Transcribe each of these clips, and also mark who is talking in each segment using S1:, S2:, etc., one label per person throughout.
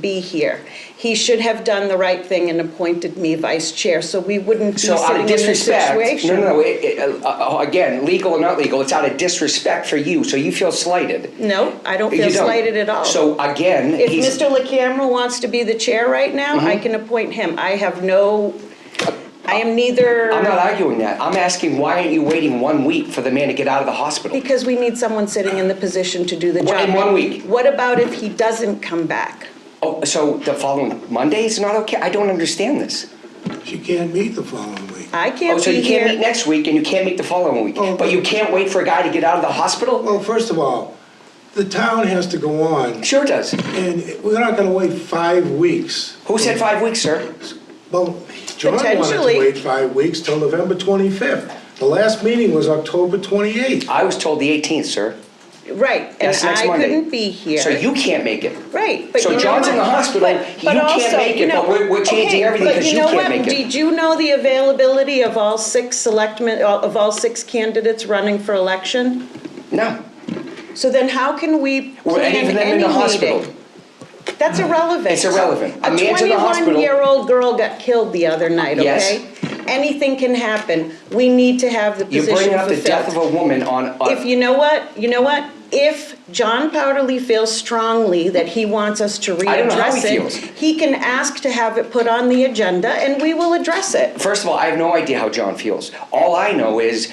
S1: be here. He should have done the right thing and appointed me vice chair, so we wouldn't be
S2: So out
S1: sitting
S2: of
S1: in this
S2: disrespect,
S1: situation.
S2: no, no, no. It, it, uh, uh, again, legal or not legal, it's out of disrespect for you. So you feel slighted.
S1: No, I don't
S2: You
S1: feel
S2: don't.
S1: slighted at all.
S2: So again,
S1: If
S2: he's, Mm-hmm.
S1: Mr. LaCamera wants to be the chair right now, I can appoint him. I have no, I am neither,
S2: I'm not arguing that. I'm asking why aren't you waiting one week for the man to get out of the hospital?
S1: because we need someone sitting in the position to do the
S2: Well,
S1: job.
S2: in one week.
S1: What about if he doesn't come back?
S2: Oh, so the following Monday is not okay. I don't understand this.
S3: She can't meet the following week.
S1: I
S2: Oh,
S1: can't
S2: so
S1: be
S2: you can't meet
S1: here.
S2: next week and you can't meet the following week,
S3: Oh.
S2: but you can't wait for a guy to get out of the hospital.
S3: Well, first of all, the town has to go on,
S2: Sure does.
S3: and we're not gonna wait five weeks.
S2: Who said five weeks, sir?
S3: Well, John wanted to
S1: Potentially.
S3: wait five weeks till November 25th. The last meeting was October 28th.
S2: I was told the 18th, sir.
S1: Right, and
S2: That's next
S1: I
S2: Monday.
S1: couldn't be here.
S2: So you can't make it.
S1: Right, but
S2: So
S1: you know
S2: John's in
S1: what?
S2: the hospital,
S1: But-
S2: you
S1: but
S2: can't
S1: also,
S2: make it,
S1: you know-
S2: but we're- we're changing
S1: okay,
S2: everything
S1: but
S2: 'cause you
S1: know
S2: can't
S1: what?
S2: make it.
S1: Did you know the availability of all six selectmen, uh, of all six candidates running for election?
S2: No.
S1: So then how can we
S2: Or
S1: plan
S2: any of them in
S1: any
S2: the hospital. Mm.
S1: meeting? That's irrelevant.
S2: It's irrelevant.
S1: A
S2: A man's in the hospital-
S1: 21-year-old girl got killed the other night,
S2: Yes.
S1: okay? Anything can happen. We need to have the
S2: You
S1: position
S2: bring
S1: fulfilled.
S2: up the death of a woman on, on
S1: If you know what, you know what? If John Powderly feels strongly that he wants us to
S2: I don't know how
S1: readdress
S2: he
S1: it,
S2: feels.
S1: he can ask to have it put on the agenda and we will address it.
S2: First of all, I have no idea how John feels. All I know is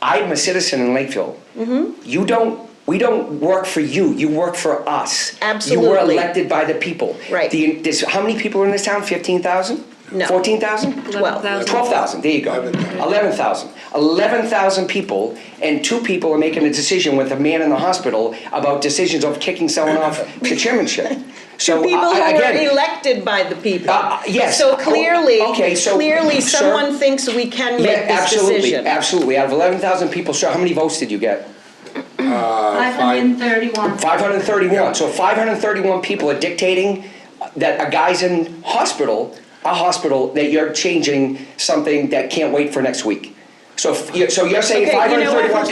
S2: I'm a citizen in Lakeville.
S1: Mm-hmm.
S2: You don't. We don't work for you. You work for us. You were
S1: Absolutely.
S2: elected by the people.
S1: Right.
S2: The, this, how many people are in this town? Fifteen thousand.
S1: No.
S2: Fourteen thousand.
S1: Well,
S4: 11,000.
S2: Twelve thousand. There you go. Eleven thousand. Eleven thousand people, and two people are making a decision with a man in the hospital about decisions of kicking someone off the chairmanship. So
S1: People who
S2: I,
S1: are
S2: again,
S1: elected by the people.
S2: Uh, uh, yes.
S1: So
S2: Oh,
S1: clearly,
S2: okay, so,
S1: clearly
S2: sir-
S1: someone thinks we can
S2: yeah,
S1: make this
S2: absolutely,
S1: decision.
S2: absolutely. Out of eleven thousand people, sir, how many votes did you get?
S4: 531.
S2: 531. So 531 people are dictating that a guy's in hospital, a hospital, that you're changing something that can't wait for next week. So, if you're- so you're saying
S1: Okay, you know what?
S2: 531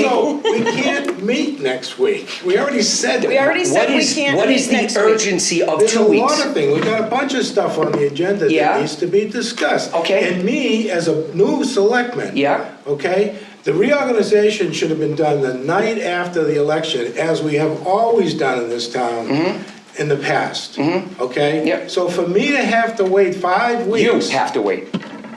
S2: people?
S3: No, we can't meet next week. We already said that.
S1: We already said
S2: What
S1: we
S2: is,
S1: can't
S2: what
S1: meet
S2: is the
S1: next week.
S2: urgency of
S3: There's a
S2: two weeks?
S3: lot of things, we got a bunch of stuff on the agenda
S2: Yeah.
S3: that needs to be discussed.
S2: Okay.
S3: And me, as a new selectman.
S2: Yeah.
S3: Okay, the reorganization should have been done the night after the election, as we have always done in this town in the past. Okay?
S2: Mm-hmm. Yep.
S3: So for me to have to wait five
S2: You
S3: weeks
S2: have to wait.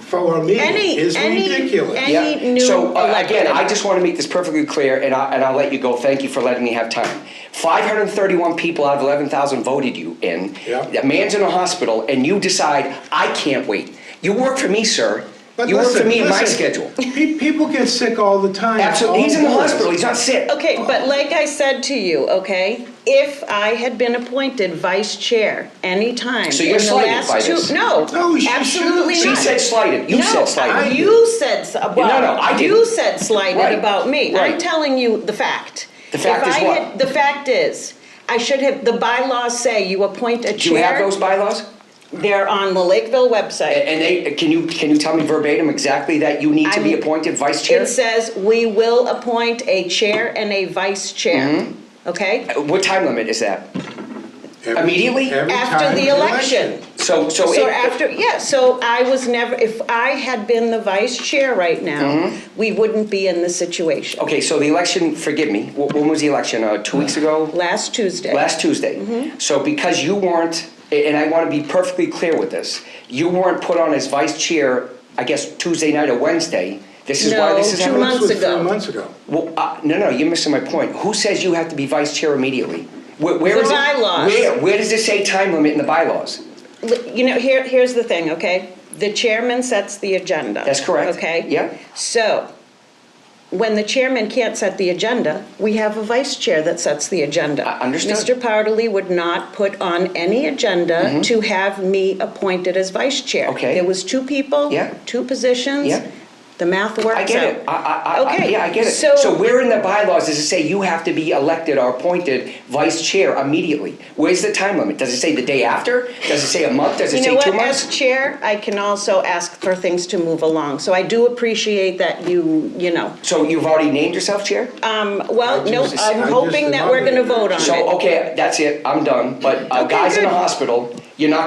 S3: for a meeting
S1: Any-
S3: is
S1: any-
S3: ridiculous.
S1: any-
S2: Yeah.
S1: new
S2: So uh, again,
S1: elected.
S2: I just want to make this perfectly clear, and I, and I'll let you go. Thank you for letting me have time. Five hundred thirty-one people out of eleven thousand voted you in.
S3: Yeah.
S2: A man's in a hospital, and you decide I can't wait. You work for me, sir.
S3: But
S2: you work for
S3: listen,
S2: me in my
S3: listen,
S2: schedule.
S3: pe- People get sick all the time.
S2: Absolutely,
S3: all
S2: he's in the
S3: over.
S2: hospital. He's not sick.
S1: Okay, but like I said to you, okay, if I had been appointed vice chair anytime
S2: So you're
S1: in the
S2: slighted
S1: last
S2: by
S1: two,
S2: this.
S1: no,
S3: No, she
S1: absolutely
S3: shouldn't.
S2: She
S1: not.
S2: said slighted. You
S1: no,
S2: said slighted.
S1: I- you said s- well,
S2: no, I
S1: you
S2: didn't.
S1: said slighted
S2: Right,
S1: about me. I'm
S2: right.
S1: telling you the fact.
S2: The fact
S1: if
S2: is
S1: I
S2: what?
S1: Had, the fact is, I should have. The bylaws say you appoint a
S2: Do
S1: chair.
S2: you have those bylaws?
S1: They're on the Lakeville website.
S2: And they can you can you tell me verbatim exactly that you need to be
S1: I'm-
S2: appointed vice chair?
S1: it says we will appoint a chair and a vice chair.
S2: Mm-hmm.
S1: Okay.
S2: What time limit is that?
S3: Every-
S2: Immediately?
S3: every
S1: After
S3: time
S1: the election.
S2: So so.
S1: So
S2: Oh, it-
S1: after, yeah, so I was never, if I had been the vice chair right now,
S2: Mm-hmm.
S1: we wouldn't be in this situation.
S2: Okay, so the election. Forgive me. wh- When was the election? Uh, two weeks ago.
S1: Last Tuesday.
S2: last Tuesday.
S1: Mm-hmm.
S2: So because you weren't, and I want to be perfectly clear with this, you weren't put on as vice chair, I guess Tuesday night or Wednesday. This is why this is
S1: No, two
S2: happening.
S1: months
S3: This was
S1: ago.
S3: three months ago.
S2: Well, uh, no, no, you're missing my point. Who says you have to be vice chair immediately? Where, where
S1: The
S2: is it-
S1: bylaws.
S2: Where, where does it say time limit in the bylaws?
S1: L- You know, here, here's the thing, okay? The chairman sets the agenda.
S2: That's correct.
S1: Okay?
S2: Yeah.
S1: So, when the chairman can't set the agenda, we have a vice chair that sets the agenda.
S2: I- understood.
S1: Mr. Powderly would not put on any agenda to have me appointed as vice chair.
S2: Mm-hmm. Okay.
S1: There was two people.
S2: Yeah.
S1: Two positions.
S2: Yeah.
S1: The math works out.
S2: I get it. I, I, I,
S1: Okay,
S2: yeah, I get it.
S1: so-
S2: so where in the bylaws does it say you have to be elected or appointed vice chair immediately? Where's the time limit? Does it say the day after? Does it say a month? Does it
S1: You
S2: say
S1: know what,
S2: two months?
S1: as chair, I can also ask for things to move along, so I do appreciate that you, you know.
S2: So you've already named yourself chair?
S1: Um, Well,
S3: I
S1: no,
S3: just- I
S1: I'm
S3: just
S1: hoping that we're gonna
S3: nominated.
S1: vote on it.
S2: So, okay, that's it, I'm done, but a
S1: Okay,
S2: guy's in the
S1: good.
S2: hospital, You're not